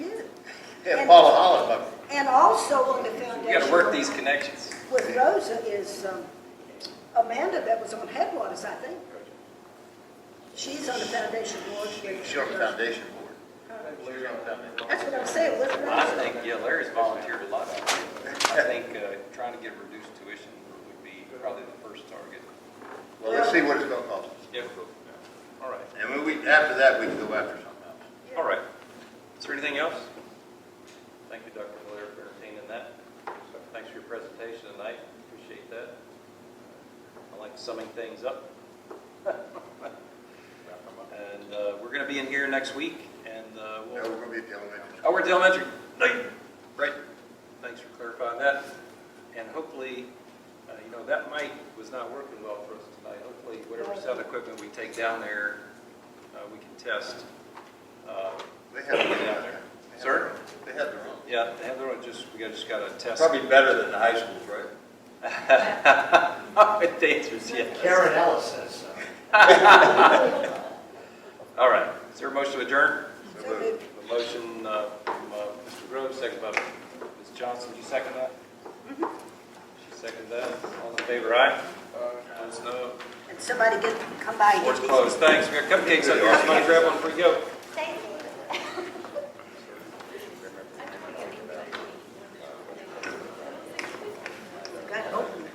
Yeah, Paula Hollenbach. And also on the foundation. We gotta work these connections. With Rosa is um, Amanda that was on Headwaters, I think. She's on the foundation board. with- She's on the foundation board. She's on the foundation. That's what I'm saying, with Rosa. Well, I think, yeah, Larry's volunteered a lot. I think uh, trying to get reduced tuition would be probably the first target. Well, let's see what it's gonna cost us. Yep. All right. And when we, after that, we can go after something else. All right. Is there anything else? Thank you, Dr. Blair, for entertaining that. Thanks for your presentation tonight. Appreciate that. I like summing things up. And uh, we're going to be in here next week, and uh, No, we'll, we're gonna be at the elementary. oh, we're at the elementary. Right. Right. Thanks for clarifying that. And hopefully, uh, you know, that mic was not working well for us tonight. Hopefully, whatever sound equipment we take down there, uh, we can test. Uh, They have their own. They have Sir? their own. They have their own. Yeah, they have their own, just, we gotta, just gotta test. Probably better than the high schools, right? The answer is yes. Karen Ellis says so. All right, is there a motion to adjourn? So moved. A motion, uh, from, uh, Mr. Groves, second by Ms. Johnson, you second that? She seconded that, all in favor, aye? Opposed, no. And somebody get, come by and Board's get these. closed, thanks, we got cupcakes up here, somebody grab one before you go.